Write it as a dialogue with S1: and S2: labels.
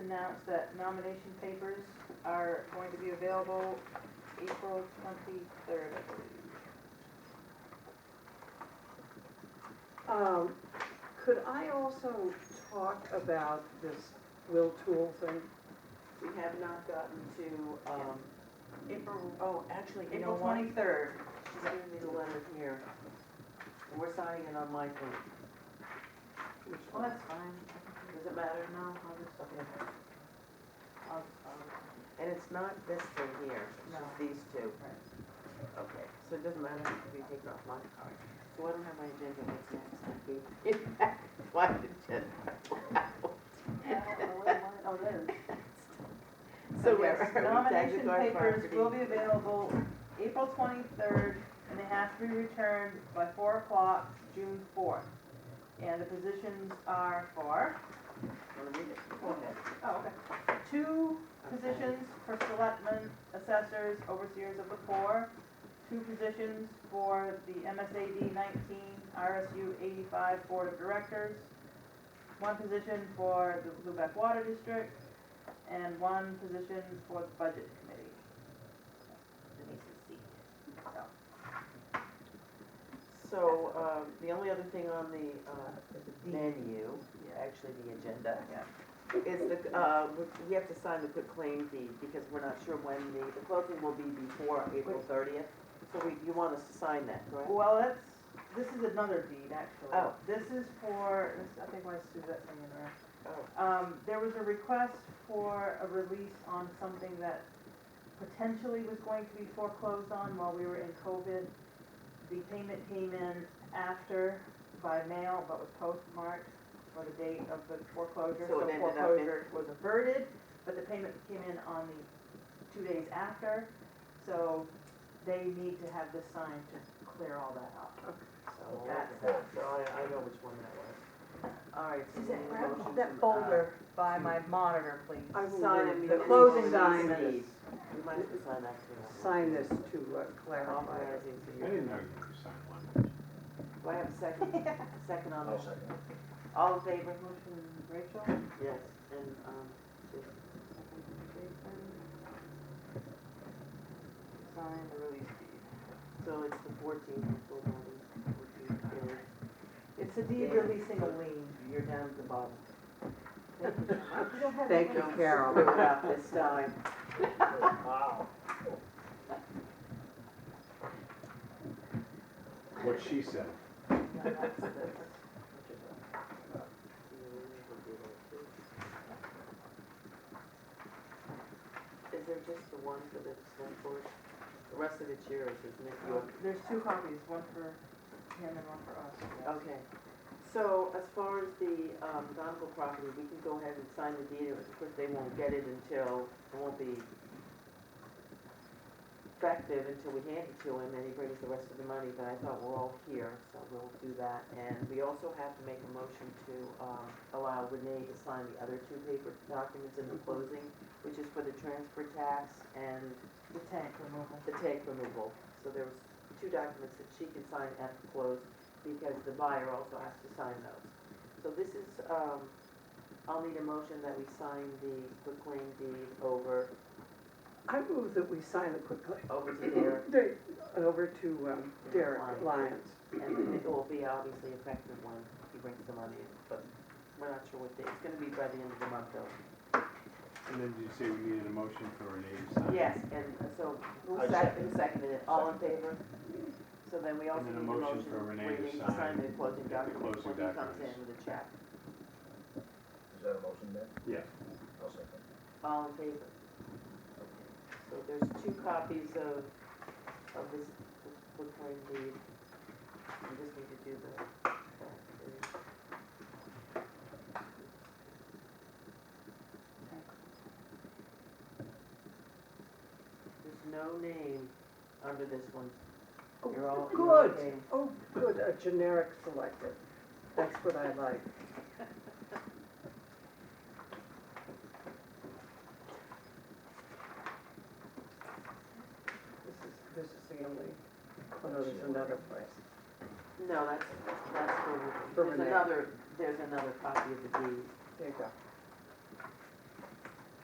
S1: announce that nomination papers are going to be available April twenty-third, I believe.
S2: Um, could I also talk about this Will Tool thing?
S3: We have not gotten to, um,
S1: April,
S3: oh, actually, you know
S1: April
S3: what?
S1: twenty-third.
S3: She's giving me the letter here. We're signing it on my phone.
S1: Well, that's fine.
S3: Does it matter?
S1: No, I'll just,
S3: Okay. I'll- I'll- And it's not this thing here, it's just these two. Okay, so it doesn't matter if we take it off my card. So I don't have my agenda, what's next? I gave you back my agenda.
S1: Oh, there.
S3: So
S1: So
S3: where
S1: yes,
S3: are we?
S1: nomination
S3: Daguerre
S1: papers will
S3: Property.
S1: be available April twenty-third, and they have to be returned by four o'clock, June fourth. And the positions are for,
S3: Wanna read it?
S1: Go ahead. oh, okay, two positions for selectmen, assessors, overseers of the poor, two positions for the MSAD nineteen, RSU eighty-five Board of Directors, one position for the Lubec Water District, and one position for the Budget Committee. Denise's seat. So,
S3: So, um, the only other thing on the, uh, menu,
S1: yeah,
S3: actually the agenda,
S1: yeah.
S3: is the, uh, we- we have to sign the quick claim deed because we're not sure when the, the closing will be before April thirtieth. So we, you want us to sign that, correct?
S1: Well, that's, this is another deed, actually.
S3: Oh.
S1: This is for, this, I think my Suzette's in there.
S3: Oh,
S1: Um, there was a request for a release on something that potentially was going to be foreclosed on while we were in COVID. The payment came in after by mail, but was postmarked for the date of the foreclosure.
S3: So it ended up in-
S1: foreclosure Was averted, but the payment came in on the two days after, so they need to have this signed to clear all that up. So
S3: Oh,
S1: that's,
S3: okay. So I, I know which one that was. All right, so we need a motion to, uh,
S4: That folder by
S1: Hmm.
S4: my monitor, please.
S2: I will
S3: Sign
S2: read
S3: it,
S2: the
S3: the
S1: closing
S2: sign
S3: document.
S2: this-
S3: We might have to sign that too.
S2: Sign this to uh, clarify. it.
S3: Authorizing to
S5: I
S3: you.
S5: didn't know you were signing language.
S3: Do I have a second? Second on that?
S5: second.
S3: All in favor?
S1: Motion, Rachel?
S3: Yes, and, um, just
S1: Sign the release deed.
S3: So it's the fourteenth, full body, fourteenth,
S1: It's a deed releasing a lien.
S3: you're down at the bottom.
S2: Thank you,
S3: Don't screw
S2: Carol.
S3: it up this time.
S5: What she said.
S3: Is there just the one for the select board? The rest of it's yours, isn't it? You-
S1: There's two copies, one for him and one for us.
S3: Okay, so as far as the um, Donegal property, we can go ahead and sign the deed, of course, they won't get it until, it won't be effective until we hand it to him, and he brings the rest of the money, but I thought we're all here, so we'll do that. And we also have to make a motion to um, allow Renee to sign the other two paper documents in the closing, which is for the transfer tax and
S1: The tank removal.
S3: the tank removal. So there was two documents that she can sign at the close because the buyer also has to sign those. So this is, um, I'll need a motion that we sign the claim deed over,
S2: I move that we sign the quick claim.
S3: over to there.
S2: They- Over to um, Derek
S3: Lyons.
S2: Lyons.
S3: And it will be obviously effective when he brings the money in, but we're not sure what day. It's gonna be by the end of the month though.
S5: And then did you say we needed a motion for Renee to sign?
S3: Yes, and uh, so who
S5: I
S3: sec- who seconded it? All in favor? So then we also need a
S5: And then a
S3: motion
S5: motion for Renee to
S3: waiting to sign
S5: sign
S3: the closing
S5: the
S3: documents when
S5: closing
S3: he comes
S5: documents.
S3: in with a check.
S6: Is that a motion then?
S5: Yes.
S6: I'll second.
S3: All in favor? So there's two copies of, of this proclaim deed. We just need to do the back page. There's no name under this one. You're all.
S2: Oh,
S3: you're all
S2: Good,
S3: named.
S2: oh, good, a generic selected. That's what I like. This is, this is the only, oh no, there's another place.
S3: No, that's, that's for,
S2: For
S3: there's
S2: Renee.
S3: another, there's another copy of the deed.
S2: There you go.